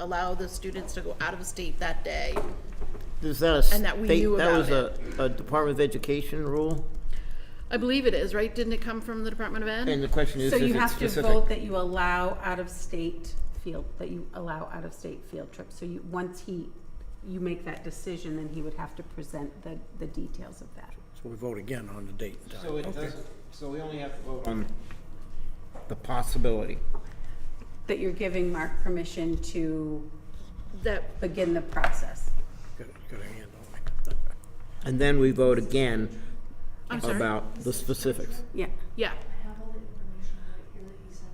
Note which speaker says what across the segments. Speaker 1: allow the students to go out of state that day.
Speaker 2: Is that a
Speaker 1: And that we knew
Speaker 2: state, that was a,
Speaker 1: about
Speaker 2: a Department of Education rule?
Speaker 1: I believe it is, right? Didn't it come from the Department of Ed?
Speaker 2: And the question is,
Speaker 3: So
Speaker 2: is
Speaker 3: you
Speaker 2: it
Speaker 3: have to
Speaker 2: specific?
Speaker 3: vote that you allow out-of-state field, that you allow out-of-state field trips. So you, once he, you make that decision, then he would have to present the, the details of that.
Speaker 4: So we vote again on the date and time.
Speaker 5: So it doesn't, so we only have to vote on the possibility.
Speaker 3: That you're giving Mark permission to
Speaker 1: That,
Speaker 3: begin the process.
Speaker 4: Got a- got a hand on it.
Speaker 2: And then we vote again
Speaker 1: I'm sorry?
Speaker 2: about the specifics.
Speaker 3: Yeah.
Speaker 1: yeah,
Speaker 6: I have all the information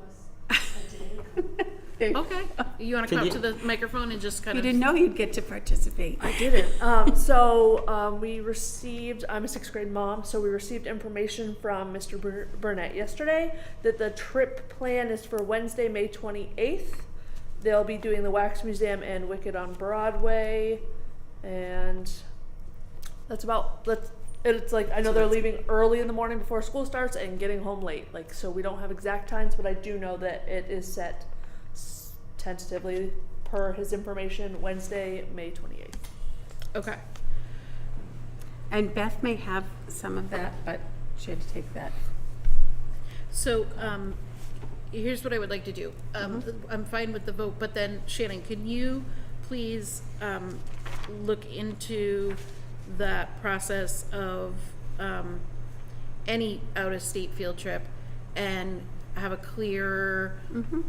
Speaker 6: right here that he sends out to us a day ago.
Speaker 1: okay. You wanna come up to the microphone and just kind
Speaker 3: You
Speaker 1: of?
Speaker 3: didn't know you'd get to participate.
Speaker 6: I didn't. Um, so um, we received. I'm a sixth grade mom, so we received information from Mr. Bur- Burnett yesterday that the trip plan is for Wednesday, May 28th. They'll be doing the Wax Museum and Wicked on Broadway, and that's about. That's it's like I know they're leaving early in the morning before school starts and getting home late. Like so, we don't have exact times, but I do know that it is set s- tentatively per his information Wednesday, May 28th.
Speaker 1: Okay,
Speaker 3: And Beth may have some of that, but she had to take that.
Speaker 1: so, um, here's what I would like to do. Um,
Speaker 3: Mm-hmm.
Speaker 1: I'm fine with the vote, but then Shannon, can you please, um, look into that process of, um, any out-of-state field trip and have a clearer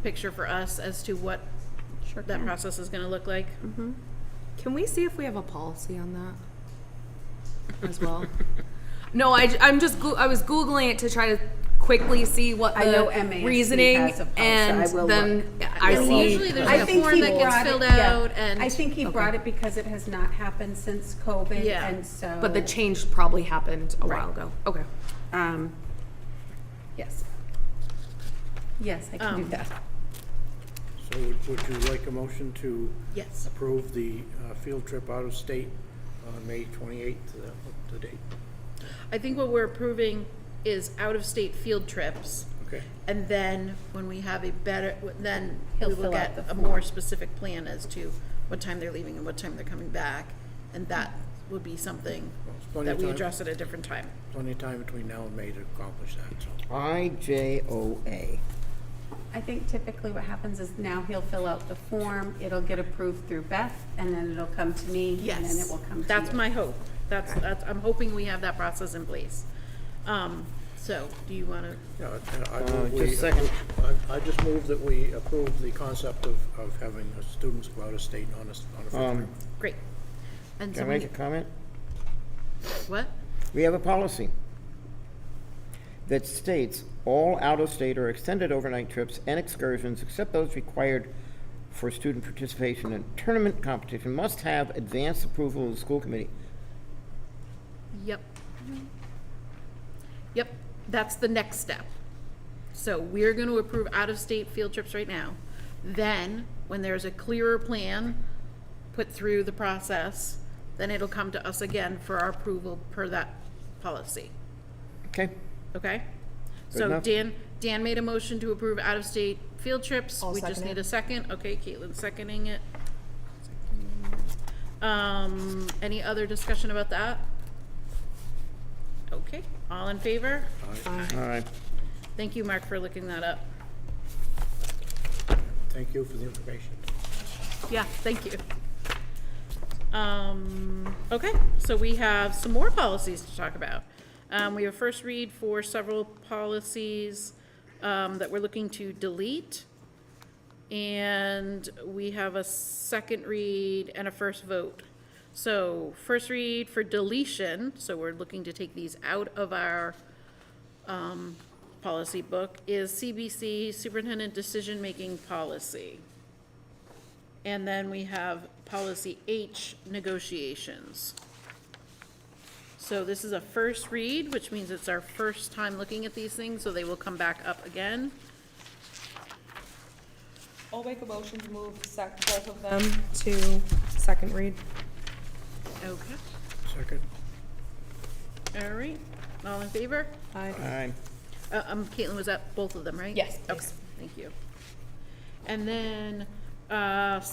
Speaker 1: picture for us as to what
Speaker 3: Mm-hmm. Sure
Speaker 1: that
Speaker 3: can. Mm-hmm.
Speaker 1: process is gonna look like?
Speaker 7: Can we see if we have a policy on that as well? no, I, am just goo- I was googling it to try to quickly see what
Speaker 3: I
Speaker 7: the
Speaker 3: know MASC
Speaker 7: reasoning
Speaker 3: has a policy.
Speaker 7: and
Speaker 3: I will
Speaker 7: then
Speaker 3: look.
Speaker 7: Yeah, I
Speaker 1: Yeah,
Speaker 7: see.
Speaker 1: usually there's
Speaker 3: I
Speaker 1: a
Speaker 3: think
Speaker 1: form
Speaker 3: he
Speaker 1: that gets
Speaker 3: brought it-
Speaker 1: filled
Speaker 3: yeah.
Speaker 1: out and-
Speaker 3: I think he brought it because it has not happened since COVID,
Speaker 1: Yeah.
Speaker 3: and so.
Speaker 7: but the change probably happened a while ago. Okay.
Speaker 3: Um, yes. Yes, I can do
Speaker 1: Um,
Speaker 3: that.
Speaker 4: So would- would you like a motion to
Speaker 1: Yes.
Speaker 4: approve the uh, field trip out of state on May 28th, uh, what the date?
Speaker 1: I think what we're approving is out-of-state field trips.
Speaker 4: Okay.
Speaker 1: And then when we have a better, then we
Speaker 3: He'll
Speaker 1: will
Speaker 3: fill
Speaker 1: get
Speaker 3: out the
Speaker 1: a
Speaker 3: form.
Speaker 1: more specific plan as to what time they're leaving and what time they're coming back. And that would be something
Speaker 4: It's plenty
Speaker 1: that
Speaker 4: of
Speaker 1: we
Speaker 4: time.
Speaker 1: address at a different time.
Speaker 4: Plenty of time between now and May to accomplish that, so.
Speaker 2: IJOA.
Speaker 3: I think typically what happens is now he'll fill out the form, it'll get approved through Beth, and then it'll come to me, and then it
Speaker 1: Yes,
Speaker 3: will come to you.
Speaker 1: that's my hope. That's, that's, I'm hoping we have that process in place. Um, so, do you wanna,
Speaker 4: Yeah, I- I
Speaker 2: Uh,
Speaker 4: move
Speaker 2: just
Speaker 4: we-
Speaker 2: second.
Speaker 4: I- I just move that we approve the concept of, of having the students go out of state on a, s- on a field
Speaker 2: Um,
Speaker 4: trip.
Speaker 1: great. And
Speaker 2: Can I make a
Speaker 1: somebody,
Speaker 2: comment?
Speaker 1: what?
Speaker 2: We have a policy that states all out-of-state or extended overnight trips and excursions, except those required for student participation in tournament competition, must have advanced approval of the school committee.
Speaker 1: Yep. Yep, that's the next step. So we're gonna approve out-of-state field trips right now. Then, when there's a clearer plan put through the process, then it'll come to us again for our approval per that policy,
Speaker 2: Okay?
Speaker 1: okay? So
Speaker 2: enough.
Speaker 1: Dan, Dan made a motion to approve out-of-state field trips.
Speaker 7: I'll
Speaker 1: We just
Speaker 7: second
Speaker 1: need
Speaker 7: it.
Speaker 1: a second. Okay, Caitlin seconding it. Um, any other discussion about that? Okay, all in favor?
Speaker 2: All right.
Speaker 1: Thank you, Mark, for looking that up.
Speaker 4: Thank you for the information.
Speaker 1: Yeah, thank you. Um, okay, so we have some more policies to talk about. Um, we have first read for several policies, um, that we're looking to delete. And we have a second read and a first vote. So first read for deletion, so we're looking to take these out of our, um, policy book, is CBC Superintendent Decision-Making Policy. And then we have policy H, negotiations. So this is a first read, which means it's our first time looking at these things, so they will come back up again.
Speaker 7: I'll make a motion to move sec- both of them to second read.
Speaker 1: Okay,
Speaker 4: Second?
Speaker 1: all right, all in favor?
Speaker 7: Aye.
Speaker 2: Aye.
Speaker 1: Uh, um, Caitlin, was that both of them, right?
Speaker 7: Yes,
Speaker 1: Okay,
Speaker 7: please.
Speaker 1: thank you. And then Uh,